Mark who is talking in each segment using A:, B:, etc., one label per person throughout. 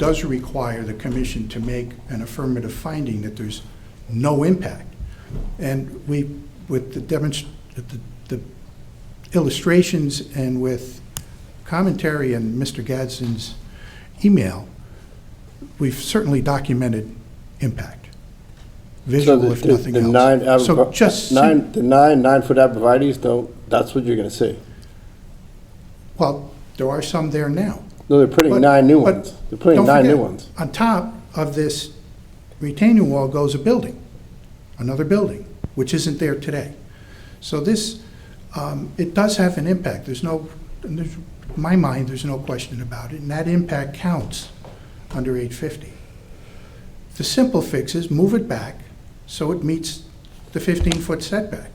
A: does require the commission to make an affirmative finding that there's no impact. And we, with the demonst, the- the illustrations and with commentary in Mr. Gadsden's email, we've certainly documented impact,
B: So
A: visual
B: the-
A: if
B: the-
A: nothing
B: the
A: else.
B: nine ab-
A: So just, sim-
B: Nine, the nine nine-foot abrevieties, though, that's what you're gonna see.
A: well, there are some there now.
B: No, they're putting
A: But-
B: nine new
A: but
B: ones. They're putting
A: Don't
B: nine new
A: forget,
B: ones.
A: On top of this retaining wall goes a building, another building, which isn't there today. So this, um, it does have an impact. There's no, and there's- in my mind, there's no question about it, and that impact counts under 850. The simple fix is move it back so it meets the 15-foot setback,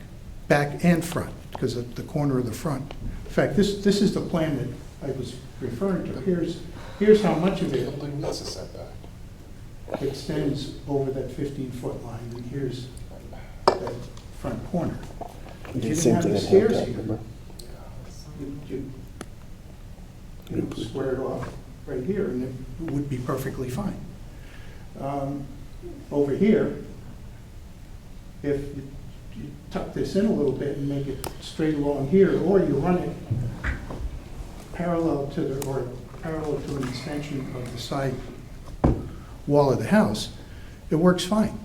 A: back and front, because of the corner of the front. In fact, this, this is the plan that I was referring to. Here's, here's how much of it
C: Building needs a setback.
A: extends over that 15-foot line, and here's that front corner. If you didn't have the stairs here, you- you you know, square it off right here, and it would be perfectly fine. Um, Over here, if you you tuck this in a little bit and make it straight along here, or you run it parallel to the, or parallel to an extension of the side wall of the house, it works fine.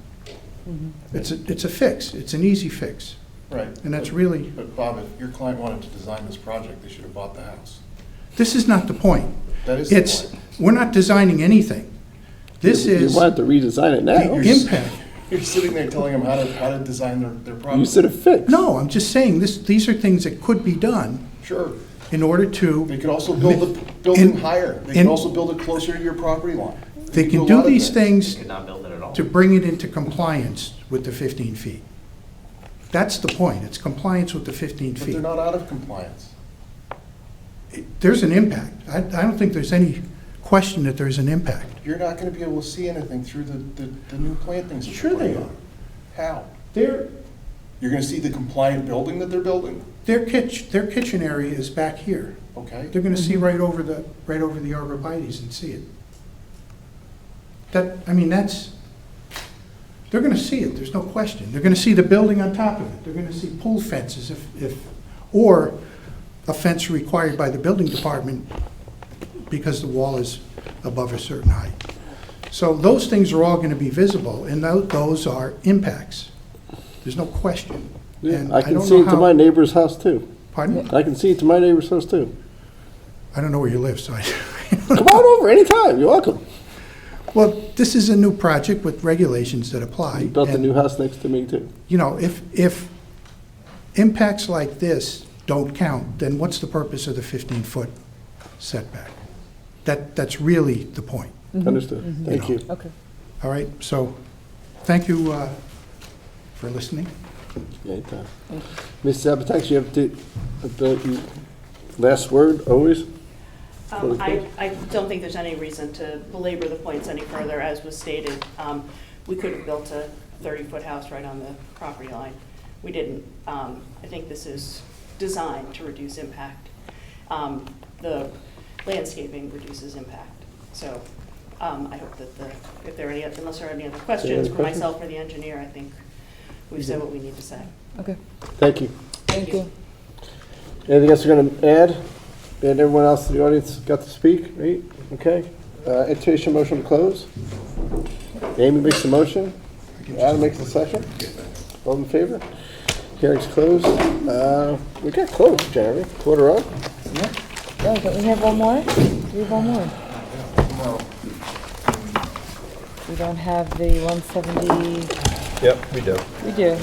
A: It's a, it's a fix, it's an easy fix,
C: Right.
A: and that's really.
C: But Bob, if your client wanted to design this project, they should have bought the house.
A: This is not the point.
C: That is the
A: It's,
C: point.
A: we're not designing anything. This
B: You-
A: is
B: You wanted to redesign it
A: the
B: now.
A: impact.
C: You're sitting there telling them how to, how to design their, their project.
B: You said a fix.
A: No, I'm just saying, this, these are things that could be done
C: Sure.
A: in order
C: They
A: to,
C: could also build the p- building
A: In-
C: higher. They
A: in-
C: could also build it closer to your property line.
A: they
C: could
A: can
C: a
A: do
C: lot of
A: these
C: things.
A: things
D: Could not build it at all.
A: to bring it into compliance with the 15 feet. That's the point, it's compliance with the 15
C: But
A: feet.
C: they're not out of compliance.
A: There's an impact. I, I don't think there's any question that there's an impact.
C: You're not gonna be able to see anything through the, the, the new plantings. that
A: Sure
C: they're
A: they
C: putting on. How?
A: Their,
C: You're gonna see the compliant building that they're building?
A: their kitchen, their kitchen area is back here.
C: Okay.
A: They're gonna see right over the, right over the arborvitae's and see it. That, I mean, that's, they're gonna see it, there's no question. They're gonna see the building on top of it. They're gonna see pool fences if, if, or a fence required by the building department because the wall is above a certain height. So those things are all gonna be visible, and tho- those are impacts. There's no question.
B: Yeah,
A: And
B: I can
A: don't
B: see
A: know
B: it to
A: how-
B: my neighbor's house, too.
A: Pardon?
B: I can see it to my neighbor's house, too.
A: I don't know where you live, so I
B: Come on over anytime. You're welcome.
A: Well, this is a new project with regulations that apply.
B: He built a
A: and,
B: new house next to me, too.
A: You know, if, if impacts like this don't count, then what's the purpose of the 15-foot setback? That, that's really the point,
B: Understood. Thank you.
E: Okay.
A: all right? So, thank you uh, for listening.
B: Anytime. Ms. Zapatax, you have the, the last word, always?
F: Um, I, I don't think there's any reason to belabor the points any further, as was stated. Um, We could have built a 30-foot house right on the property line. We didn't. Um, I think this is designed to reduce impact. Um, The landscaping reduces impact. So um, I hope that the, if there are any, unless there are any other questions for
B: questions?
F: myself or the engineer, I think we've said what we need to say.
E: Okay.
B: Thank you.
E: Thank you.
B: Anything else you're going to add? And everyone else in the audience got to speak, right? Okay. Uh, Entertain a motion to close. Amy makes the motion. Adam makes the second. All in favor? Hearing's closed. Uh, We got close, Jeremy. Quarter up.
E: Oh, don't we have one more? We have one more. We don't have the one seventy,
G: Yep, we do.
E: we do.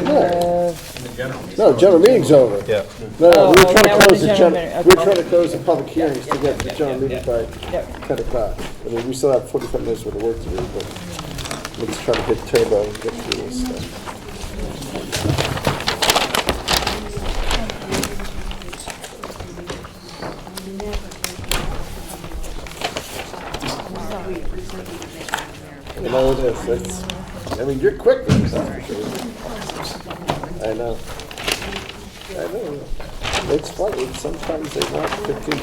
E: We have,
B: No, general meeting's over.
G: Yeah.
B: No, no,
E: Oh,
B: we were trying
E: that
B: to close
E: was the
B: the
E: general
B: general,
E: meeting,
B: we were
E: okay.
B: trying to close the public hearings to get the general meeting by
E: yeah.
B: ten o'clock. I mean, we still have forty-five minutes worth of work to do, but let's try to hit turbo and get through this stuff. You know, it is, it's, I mean, you're quick with this, that's for sure. I know. I know. It's funny, sometimes they want fifteen